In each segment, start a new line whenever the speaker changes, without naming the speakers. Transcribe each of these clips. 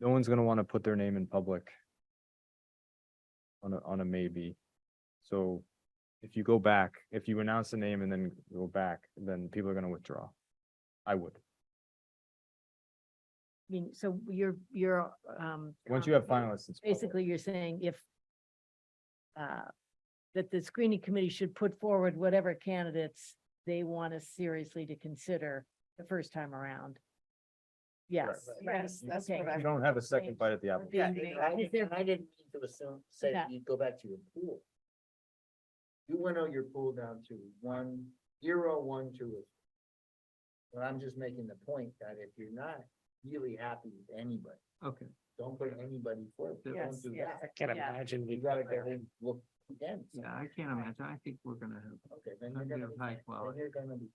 no one's gonna wanna put their name in public. On a, on a maybe. So if you go back, if you announce the name and then go back, then people are gonna withdraw. I would.
I mean, so you're, you're, um.
Once you have
com-
finalists, it's public.
Basically, you're saying if uh, that the screening committee should put forward whatever candidates they want us seriously to consider the first time around. Yes.
Right.
yes,
That's
okay.
what I-
You don't have a second bite at the apple.
Yeah,
being
and
made.
I
Is
didn't,
there-
and I didn't mean to assume, say
Yeah.
you go back to your pool. You went out your pool down to one, zero, one, two. or- But I'm just making the point that if you're not really happy with anybody,
Okay.
don't put anybody forward.
Yes,
Don't do
yeah.
that.
Can't
Yeah.
imagine. we
You gotta
put that
go and look again.
Yeah, I can't imagine. I think we're gonna have,
Okay, then
I'm
you're gonna,
gonna
be-
high
then
quality.
you're gonna be.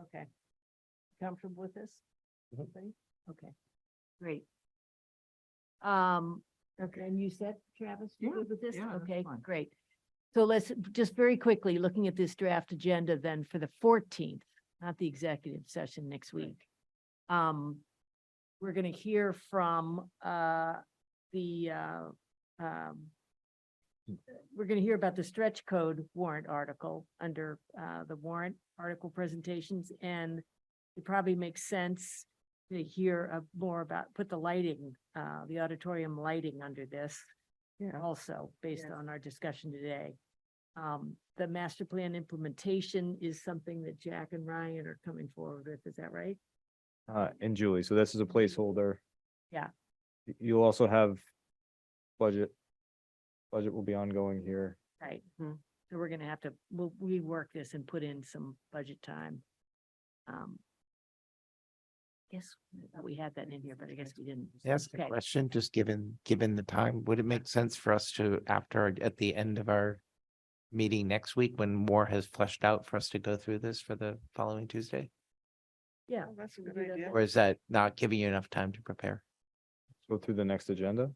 Okay. Comfortable with this? Everybody? Okay, great. Um, okay, and you said, Travis, you
Yeah,
good with this?
yeah, that's
Okay,
fine.
great. So let's, just very quickly, looking at this draft agenda then for the fourteenth, not the executive session next week. Um, we're gonna hear from, uh, the, uh, um, we're gonna hear about the stretch code warrant article under, uh, the warrant article presentations and it probably makes sense to hear uh, more about, put the lighting, uh, the auditorium lighting under this
Yeah.
also, based
Yes.
on our discussion today. Um, the master plan implementation is something that Jack and Ryan are coming forward with, is that right?
Uh, and Julie, so this is a placeholder.
Yeah.
Y- You'll also have budget. Budget will be ongoing here.
Right. Mm-hmm. So we're gonna have to, we'll rework this and put in some budget time. Um. Guess, I thought we had that in here, but I guess we didn't.
Ask a
Okay.
question, just given, given the time, would it make sense for us to, after, our- at the end of our meeting next week, when more has fleshed out for us to go through this for the following Tuesday?
Yeah.
Oh,
That's
we do that then.
Or is that not giving you enough time to prepare?
Go through the next agenda.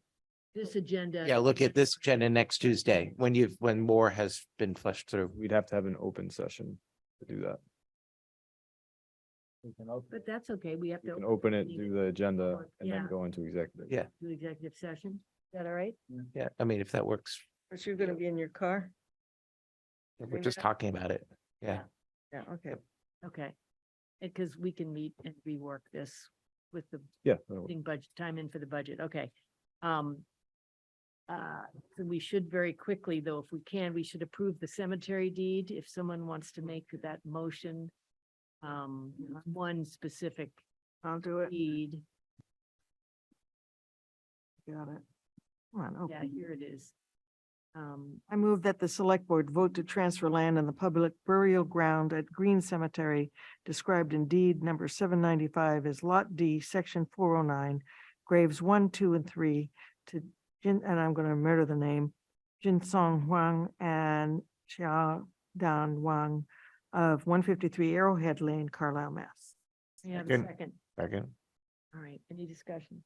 This agenda.
Yeah, look at this agenda next Tuesday, when you've, when more has been fleshed through.
We'd have to have an open session to do that.
We can open
But
it.
that's okay, we have
You
to.
can open it,
meeting
do the agenda
before-
and then
yeah.
go into executive.
Yeah.
to executive session. Is that all right?
Yeah, I mean, if that works,
But you're gonna be in your car?
if we're
Bring it
just
up.
talking about it. Yeah,
Yeah, okay.
Okay. Because we can meet and rework this with the
Yeah. that'll work.
putting budget time in for the budget, okay. Um. Uh, so we should very quickly, though, if we can, we should approve the cemetery deed, if someone wants to make that motion. Um, one specific
I'll do it.
deed,
Got it. Come on,
yeah,
okay.
here it is. Um,
I move that the select board vote to transfer land in the public burial ground at Green Cemetery described in deed number seven ninety-five as Lot D, section four oh nine, graves one, two, and three to Jin, and I'm gonna murder the name, Jin Song Huang and Xia Dan Wang of one fifty-three Arrowhead Lane, Carlisle, Mass.
may I have a
Second.
second,
second.
all right, any discussion?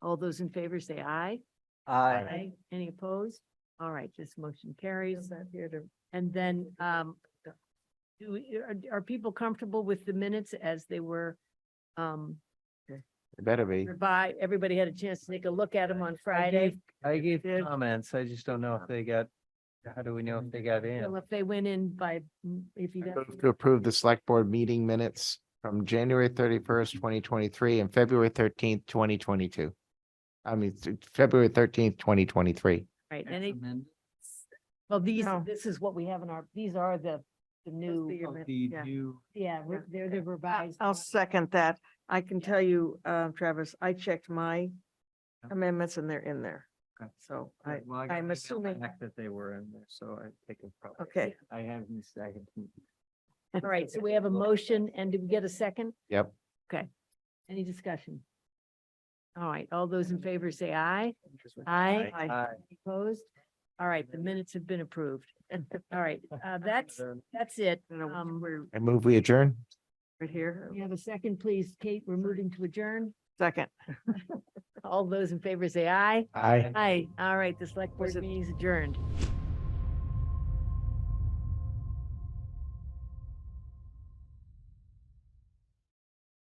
All those in favor say aye.
Aye.
Aye. Any opposed? All right, this motion carries.
Is that here to
And then, um, do, we- are, are people comfortable with the minutes as they were? Um,
It better be.
revi- everybody had a chance to take a look at them on Friday.
I gave
did.
comments. I just don't know if they got, how do we know if they got
Well,
in?
if they went in by, mm, if you
I
got,
move To approve the select board meeting minutes from January thirty-first, twenty twenty-three and February thirteenth, twenty twenty-two. I mean, th- February thirteenth, twenty twenty-three.
right,
Ex
any,
amend-
well, these,
No.
this is what we have in our, these are the, the new,
the-
of
amend-
The
yeah.
new,
yeah, re-
yeah.
they're the
I-
revised.
I'll
ones.
second that. I can
Yeah.
tell you, uh, Travis, I checked my
Yeah.
amendments and they're in there.
Okay.
So I,
well, I got
I'm
email
assuming,
back That they were in there, so I take it probably.
okay,
I haven't, I haven't.
All right, so we have a motion and did we get a second?
Yep.
Any discussion? All right, all those in favor say aye. Aye.
Aye.
Opposed? All right, the minutes have been approved. All right, uh, that's, that's it.
I don't know,
Um, we're,
I move we adjourn.
right here,
we have a second, please. Kate, we're moving to adjourn.
second.
All those in favor say aye.
Aye.
Aye. All right, the select board
Was it-
meeting is adjourned.